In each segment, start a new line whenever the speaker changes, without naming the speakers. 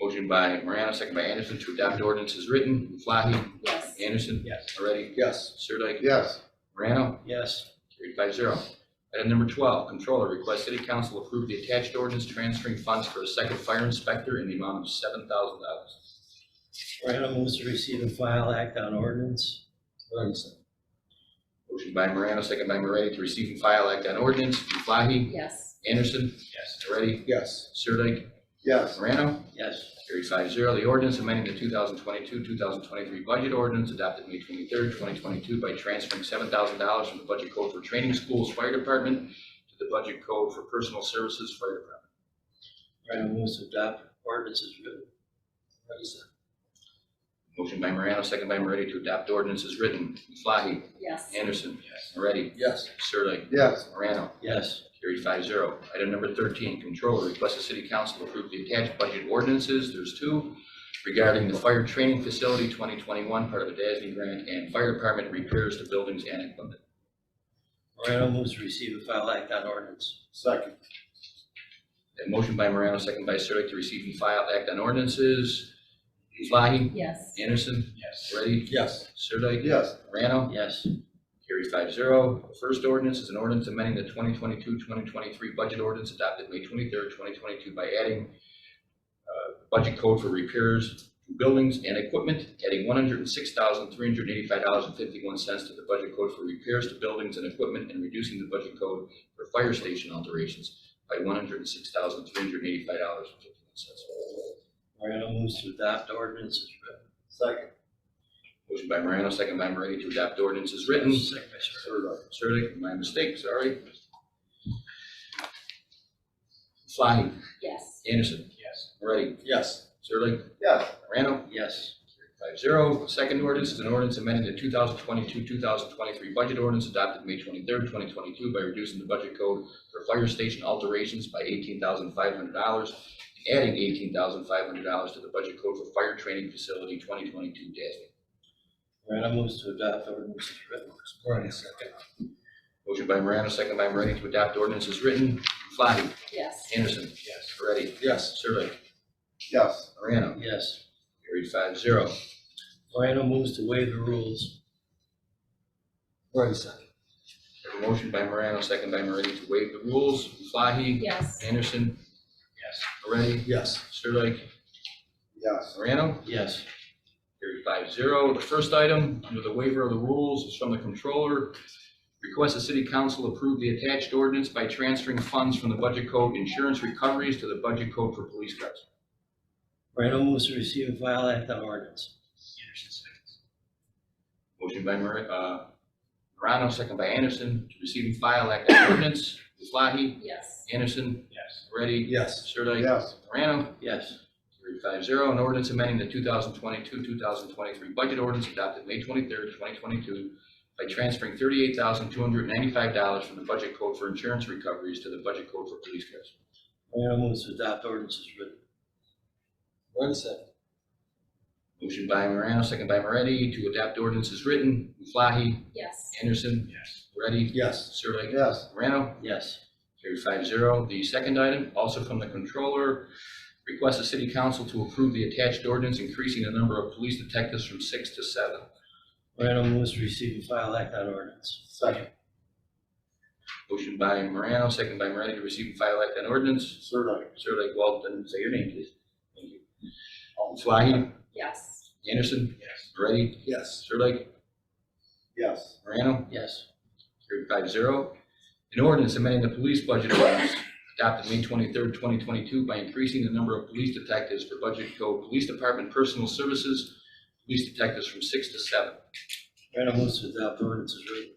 Motion by Morano, second by Anderson to adopt ordinance as written. Muflahi?
yes,
Anderson?
Yes.
Moretti?
Yes.
Sirdike?
Yes.
Morano?
Yes.
Carried five zero. Item number twelve, Controller, request City Council approve the attached ordinance transferring funds for a second fire inspector in the amount of seven thousand dollars.
Morano moves to receive and file act on ordinance.
Livingston.
Motion by Morano, second by Moretti to receive and file act on ordinance. Muflahi?
yes,
Anderson?
Yes.
Moretti?
Yes.
Sirdike?
Yes.
Morano?
Yes.
Carried five zero. The ordinance amending the two thousand twenty-two, two thousand twenty-three budget ordinance adopted May twenty-third, twenty twenty-two by transferring seven thousand dollars from the budget code for training schools fire department to the budget code for personal services fire department.
Morano moves to adopt ordinance as written. Livingston.
Motion by Morano, second by Moretti to adopt ordinance as written. Muflahi?
yes,
Anderson? Moretti?
Yes.
Sirdike?
Yes.
Morano?
Yes.
Carried five zero. Item number thirteen, controller requests the city council approve the attached budget ordinances, there's two, regarding the fire training facility twenty twenty-one, part of the DASNY grant, and fire department repairs to buildings and equipment.
Morano moves to receive and file act on ordinance.
Second.
A motion by Morano, second by Sirdike, to receive and file act on ordinances. Muflahi?
yes,
Anderson?
Yes.
Moretti?
Yes.
Sirdike?
Yes.
Morano?
Yes.
Carried five zero. First ordinance is an ordinance amending the 2022-2023 budget ordinance adopted May twenty-third, twenty twenty-two by adding uh, budget code for repairs to buildings and equipment, adding one hundred and six thousand, three hundred and eighty-five dollars and fifty-one cents to the budget code for repairs to buildings and equipment and reducing the budget code for fire station alterations by one hundred and six thousand, three hundred and eighty-five dollars and fifty-one cents.
Morano moves to adopt ordinance as written.
Second.
Motion by Morano, second by Moretti to adopt ordinance as written.
Second by Sir.
Third.
Surdick, my mistake, sorry. Fly,
yes,
Anderson,
Yes.
Moretti,
Yes.
Surdick,
Yes.
Morano.
Yes.
Five zero. Second ordinance is an ordinance amending the two thousand twenty-two, two thousand twenty-three budget ordinance adopted May twenty-third, twenty twenty-two by reducing the budget code for fire station alterations by eighteen thousand five hundred dollars and adding eighteen thousand five hundred dollars to the budget code for fire training facility twenty twenty-two
Morano moves to adopt ordinance as written.
Moretti, second.
Motion by Morano, second by Moretti to adopt ordinance as written. Fly,
yes,
Anderson,
Yes.
Moretti,
Yes.
Surdick,
Yes.
Morano,
Yes.
carried five zero.
Morano moves to waive the rules.
Moretti, second.
Have a motion by Morano, second by Moretti to waive the rules. Muflahi?
yes,
Anderson?
Yes.
Moretti?
Yes.
Sirdike?
Yes.
Morano?
Yes.
Carried five zero. The first item under the waiver of the rules is from the controller. Request the city council approve the attached ordinance by transferring funds from the budget code insurance recoveries to the budget code for police cars.
Morano moves to receive and file act on ordinance. Anderson seconds.
Motion by Mor- uh, Morano, second by Anderson to receive and file act on ordinance. Muflahi?
yes,
Anderson?
Yes.
Moretti?
Yes.
Sirdike?
Yes.
Morano?
Yes.
Carried five zero, an ordinance amending the two thousand twenty-two, two thousand twenty-three budget ordinance adopted May twenty-third, twenty twenty-two by transferring thirty-eight thousand, two hundred ninety-five dollars from the budget code for insurance recoveries to the budget code for police cars.
Morano moves to adopt ordinance as written.
Moretti, second.
Motion by Morano, second by Moretti, to adopt ordinance as written. Muflahi,
yes,
Anderson,
Yes.
Moretti,
Yes.
Sirdike,
Yes.
Morano.
Yes.
Carried five zero. The second item, also from the controller, request the city council to approve the attached ordinance increasing the number of police detectives from six to seven.
Morano moves to receive and file act on ordinance.
Second.
Motion by Morano, second by Moretti to receive and file act on ordinance.
Third.
Sirlik, Walton, say your name, please. Thank you. Muflahi,
yes,
Anderson,
Yes.
Moretti,
Yes.
Sirlik,
Yes.
Morano,
Yes.
carried five zero. An ordinance amending the police budget ordinance adopted May twenty-third, twenty twenty-two by increasing the number of police detectives for budget code, police department personal services, police detectives from six to seven.
Morano moves to adopt ordinance as written.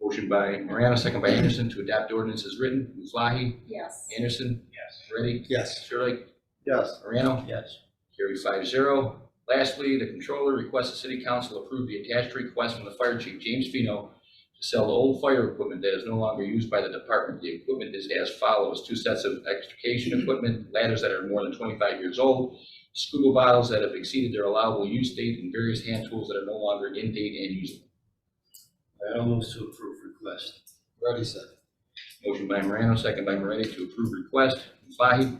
Motion by Morano, second by Anderson to adopt ordinance as written. Muflahi,
yes,
Anderson,
Yes.
Moretti,
Yes.
Sirlik,
Yes.
Morano,
Yes.
Carried five zero. Lastly, the controller requests the city council approve the attached request from the fire chief, James Fino, to sell the old fire equipment that is no longer used by the department. The equipment is as follows, two sets of extrication equipment, ladders that are more than twenty-five years old, scuba bottles that have exceeded their allowable use date, and various hand tools that are no longer in date and useful.
Morano moves to approve request.
Moretti, second.
Motion by Morano, second by Moretti to approve request. Muflahi?